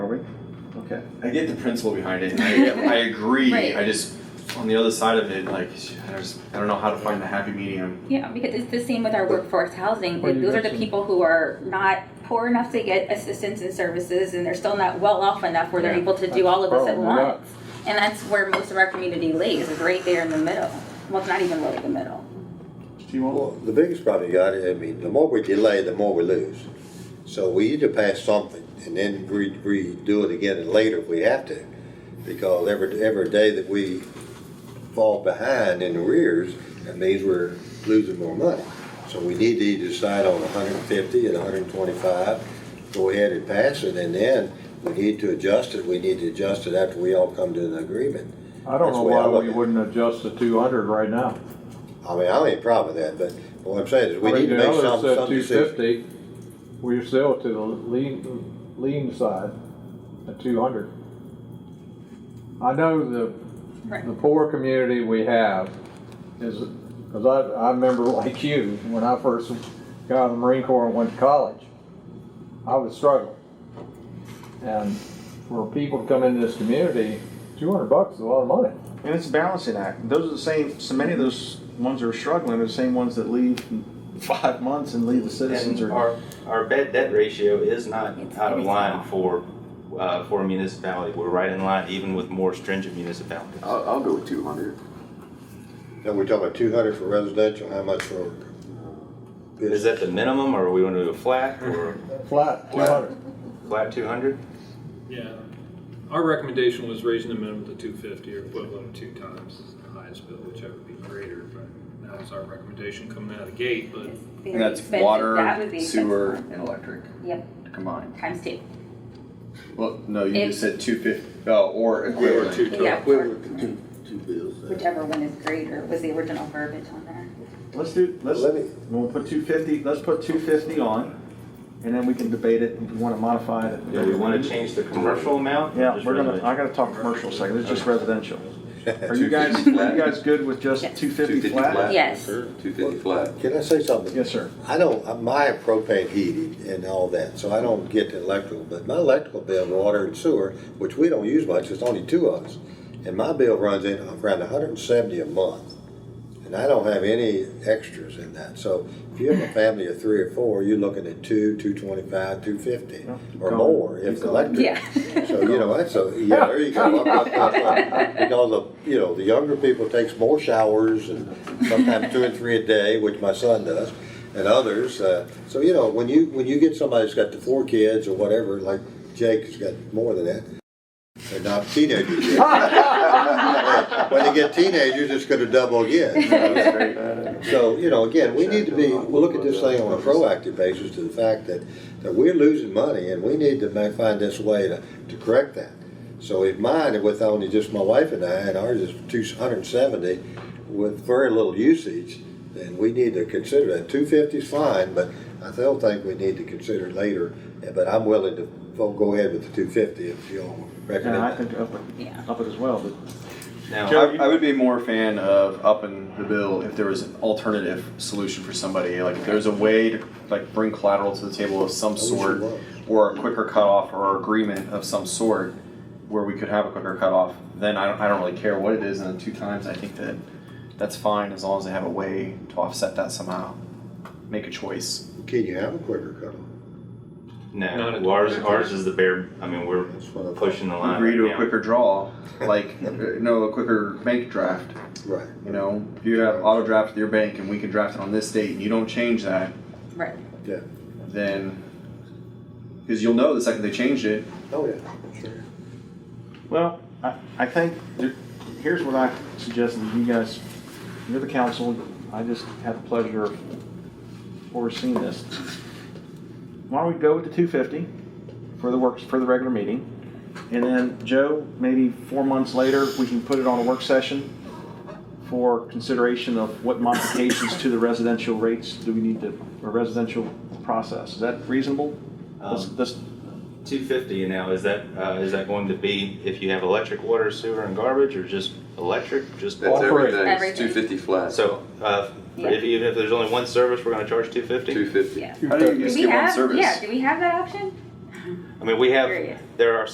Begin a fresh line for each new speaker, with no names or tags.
Okay.
I get the principle behind it. and I, I agree.
Right.
I just on the other side of it, like I just I don't know how to find the happy medium.
Yeah, because it's the same with our workforce housing.
Well, you
Those are the
mentioned-
people who are not poor enough to get assistance and services, and they're still not well off enough where they're
Yeah.
able to do all of us at
Problem, yeah.
once. And that's where most of our community lays, is right there in the middle. Well, it's not even really the middle.
Do you want?
Well, the biggest problem you got, I mean, the more we delay, the more we lose. So we either pass something and then re- redo it again later if we have to. Because every, every day that we fall behind in arrears, that means we're losing more money. So we need to either decide on 150 and 125, go ahead and pass it, and then we need to adjust it. We need to adjust it after we all come to an agreement.
I don't
That's
know
the way I
why
look
we
at it.
wouldn't adjust the two hundred right now.
I mean, I don't have a problem with that, but what I'm saying is we
I mean,
need to
the
make
others
some,
said
some decision.
250. We're still to the lean, lean side at two hundred. I know the
Right.
the poor community we have is, because I, I remember like you, when I first got out of the Marine Corps and went to college, I was struggling. And for people to come into this community, two hundred bucks is a lot of money.
And it's a balancing act. Those are the same, so many of those ones that are struggling are the same ones that leave in five months and leave the citizens
And
or.
our, our bad debt ratio is not
It's
out of
pretty low.
line for, uh, for a municipality. We're right in line even with more stringent municipalities.
I'll, I'll go with 200.
Now, we're talking about two hundred for residential, how much for?
Is that the minimum or are we gonna do a flat or
Flat, two hundred.
flat two hundred?
Yeah. Our recommendation was raising the minimum to two fifty or equivalent of two times is the highest bill, whichever would be greater, but that was our recommendation coming out of the gate, but
It's very
And that's
expensive. That would
water,
be
sewer,
expensive.
and electric
Yep,
combined.
times two.
Well, no, you
If-
just said 250 uh, or equivalent.
two
Yeah, or
Equivalent to two, two bills. uh,
whichever one is greater was the original verbiage on there.
Let's do, let's,
Let me-
we'll put two fifty, let's put two fifty on, and then we can debate it if we wanna modify it.
Do we wanna change the commercial amount? or
Yeah,
just
we're gonna,
residential?
I gotta talk commercial second, it's just residential. Are you guys, are
250
you
flat.
guys good with just
Yes.
two fifty flat?
Yes.
250 flat.
Can I say something?
Yes, sir.
I don't, uh, my propane heated and all that, so I don't get the electrical, but my electrical bill, water and sewer, which we don't use much, it's only two of us. And my bill runs in around hundred and seventy a month, and I don't have any extras in that. So if you have a family of three or four, you're looking at two, two twenty-five, two fifty, or
Go.
more if
Go.
electric.
Yeah.
So, you know, that's a, yeah, there you go, up, up, up, up. Because of, you know, the younger people takes more showers and sometimes two and three a day, which my son does, and others. Uh, so, you know, when you, when you get somebody that's got the four kids or whatever, like Jake has got more than that, they're not teenagers yet. When they get teenagers, it's gonna double again. So, you know, again, we need to be, we'll look at this thing on a proactive basis to the fact that, that we're losing money and we need to ma- find this way to, to correct that. So if mine, with only just my wife and I, and ours is two hundred and seventy with very little usage, then we need to consider that. Two fifty's fine, but I still think we need to consider it later. Yeah, But I'm willing to fo- go ahead with the two fifty if y'all
And I
recommend that.
think up it,
Yeah.
up it as well, but
Now,
I, I would be more a fan of upping the bill if there was an alternative solution for somebody. Like if there's a way to like bring collateral to the table of some
wish
sort,
there was.
or a quicker cutoff or agreement of some sort, where we could have a quicker cutoff. Then I don't, I don't really care what it is. And then two times, I think that that's fine as long as they have a way to offset that somehow. Make a choice.
Can you have a quicker cutoff?
Not
no,
at
well, ours, ours is the bare, I mean, we're
That's what I thought.
pushing the line.
Agree to
right
a
now.
quicker draw, like uh, no, a quicker bank draft.
Right.
You know, if you have auto draft with your bank and we can draft it on this date and you don't change that,
Right.
Yeah.
then because you'll know the second they change it.
Oh, yeah. Sure.
Well, I, I think, there- here's what I suggest that you guys, you're the council, I just had the pleasure of overseeing this. Why don't we go with the two fifty for the works, for the regular meeting? And then, Joe, maybe four months later, we can put it on a work session for consideration of what modifications to the residential rates do we need to, or residential process. Is that reasonable? Let's,
Um,
let's,
250 now, is that, uh, is that going to be if you have electric, water, sewer, and garbage, or just electric, just
That's
All
water?
three.
everything. It's
Everything.
250 flat.
So, uh,
Yeah.
if, even if there's only one service, we're gonna charge 250?
250.
Yeah.
How do you
Do
just
we
get one
have,
service?
yeah, do we have that option?
I mean, we have,
Curious.
there are